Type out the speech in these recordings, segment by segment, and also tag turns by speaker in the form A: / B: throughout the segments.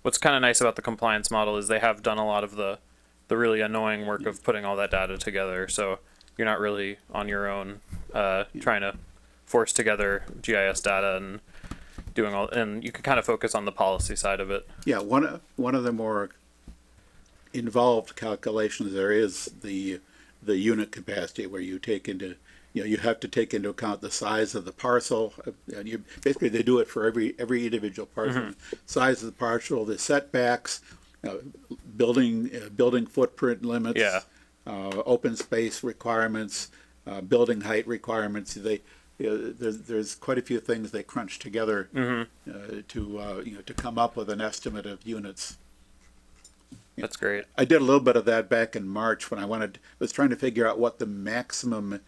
A: what's kind of nice about the compliance model is they have done a lot of the the really annoying work of putting all that data together. So you're not really on your own uh, trying to force together GIS data and doing all and you can kind of focus on the policy side of it.
B: Yeah, one of, one of the more involved calculations there is the, the unit capacity where you take into, you know, you have to take into account the size of the parcel. uh, And you, basically they do it for every, every individual parcel. Size of the parcel, the setbacks, uh, building, uh, building footprint limits.
A: Yeah.
B: Uh, open space requirements, uh, building height requirements. They, you know, there's, there's quite a few things they crunch together uh, to, uh, you know, to come up with an estimate of units.
A: That's great.
B: I did a little bit of that back in March when I wanted, was trying to figure out what the maximum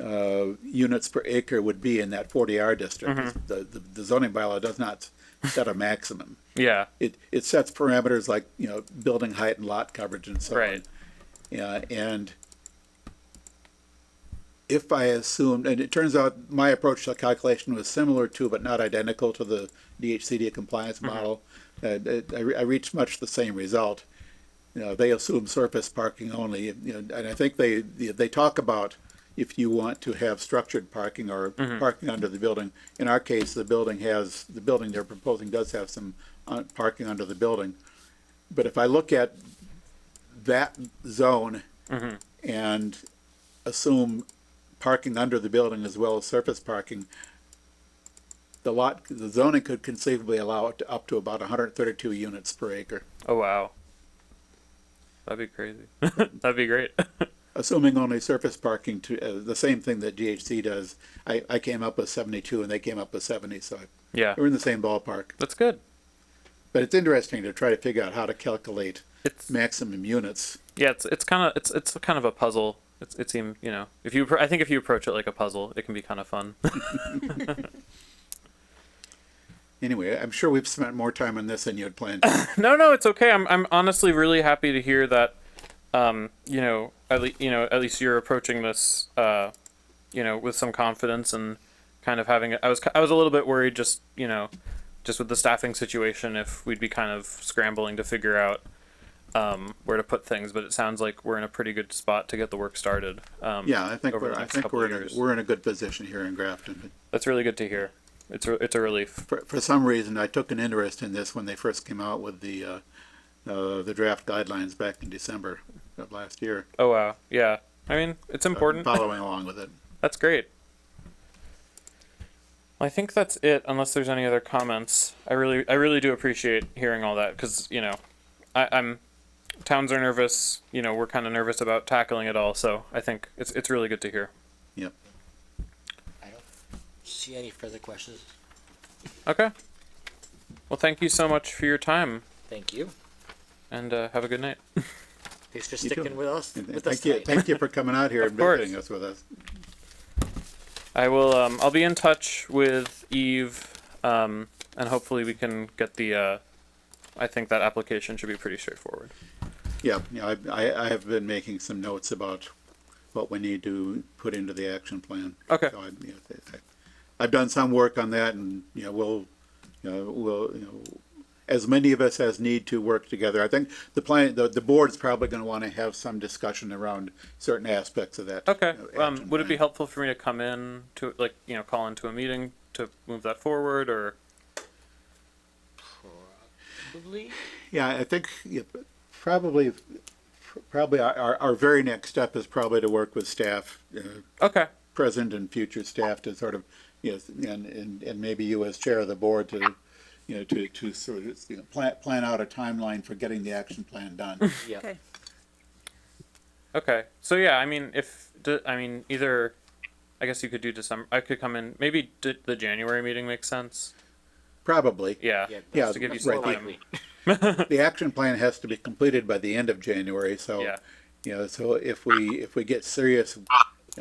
B: uh, units per acre would be in that 40R district. The, the- the zoning bylaw does not set a maximum.
A: Yeah.
B: It, it sets parameters like, you know, building height and lot coverage and so on.
A: Right.
B: Yeah, and if I assumed, and it turns out my approach to calculation was similar to, but not identical to the DHCD compliance model. Uh, it- I, re- I reached much the same result. You know, they assume surface parking only, you know, and I think they, they talk about if you want to have structured parking or parking under the building. In our case, the building has, the building they're proposing does have some uh, parking under the building. But if I look at that zone and assume parking under the building as well as surface parking, the lot, the zoning could conceivably allow it to up to about hundred and thirty-two units per acre,
A: Oh wow. That'd be crazy. That'd be great.
B: assuming only surface parking to, uh, the same thing that GHC does. I, I came up with seventy-two and they came up with seventy, so
A: yeah.
B: we're in the same ballpark.
A: That's good.
B: But it's interesting to try to figure out how to calculate
A: It's
B: maximum units.
A: yeah, it's it's kind of it's it's kind of a puzzle. It's it seems you know if you appro- I think if you approach it like a puzzle, it can be kind of fun.
B: Anyway, I'm sure we've spent more time on this than you had planned.
A: no, no, it's okay. I'm I'm honestly really happy to hear that. Um, you know, at least you know at least you're approaching this, uh, you know, with some confidence and kind of having. I was ki- I was a little bit worried just you know, just with the staffing situation if we'd be kind of scrambling to figure out um, where to put things, but it sounds like we're in a pretty good spot to get the work started. Um,
B: Yeah, I think
A: over
B: we're,
A: the
B: I
A: next
B: think
A: couple
B: we're
A: of
B: in a,
A: years.
B: we're in a good position here in Grafton.
A: That's really good to hear. It's a, it's a relief.
B: For, for some reason, I took an interest in this when they first came out with the, uh, uh, the draft guidelines back in December of last year.
A: Oh wow, yeah. I mean, it's
B: I've been
A: important.
B: Following along with it.
A: That's great. Well, I think that's it. Unless there's any other comments, I really, I really do appreciate hearing all that because you know, I, I'm towns are nervous. You know, we're kind of nervous about tackling it all. So I think it's it's really good to hear.
B: Yep.
C: I don't see any further questions.
A: Okay. Well, thank you so much for your time,
C: Thank you.
A: and uh, have a good night.
C: Thanks for
B: You too.
C: sticking with us.
B: And- and
C: With us
B: Thank you,
C: tonight.
B: thank you for coming out here
A: Of
B: and
A: course.
B: visiting us with us.
A: I will. Um, I'll be in touch with Eve, um, and hopefully we can get the. Uh, I think that application should be pretty straightforward.
B: Yeah, yeah, I- I, I have been making some notes about what we need to put into the action plan.
A: Okay.
B: So I, you know, I- I've done some work on that and, you know, we'll, you know, we'll, you know, as many of us as need to work together. I think the plan, the, the board's probably gonna wanna have some discussion around certain aspects of that.
A: Okay.
B: you know,
A: Um,
B: action
A: would it be
B: plan.
A: helpful for me to come in to like you know call into a meeting to move that forward or?
C: Probably.
B: Yeah, I think yeah, probably, probably our- our, our very next step is probably to work with staff, uh,
A: Okay.
B: present and future staff to sort of, you know, and, and, and maybe you as chair of the board to, you know, to, to sort of, you know, plan, plan out a timeline for getting the action plan done.
C: Yeah.
D: Okay.
A: Okay. So yeah, I mean, if d- I mean either, I guess you could do December. I could come in. Maybe d- the January meeting makes sense.
B: Probably.
A: Yeah.
C: Yeah.
B: Yeah,
A: Just to give you
B: that's
C: More
A: some
B: right,
A: time.
C: likely.
B: The action plan has to be completed by the end of January, so,
A: Yeah.
B: you know, so if we, if we get serious,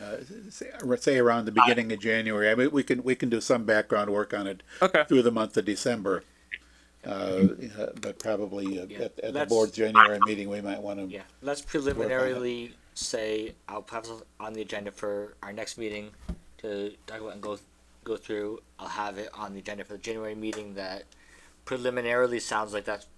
B: uh, say- say around the beginning of January, I mean, we can, we can do some background work on it
A: Okay.
B: through the month of December. Uh, uh, but probably uh,
C: Yeah,
B: at, at the
C: let's-
B: board's January meeting, we might want to.
C: Yeah. Let's preliminarily say I'll have this on the agenda for our next meeting to talk about and go go through. I'll have it on the agenda for the January meeting. That preliminarily sounds like that's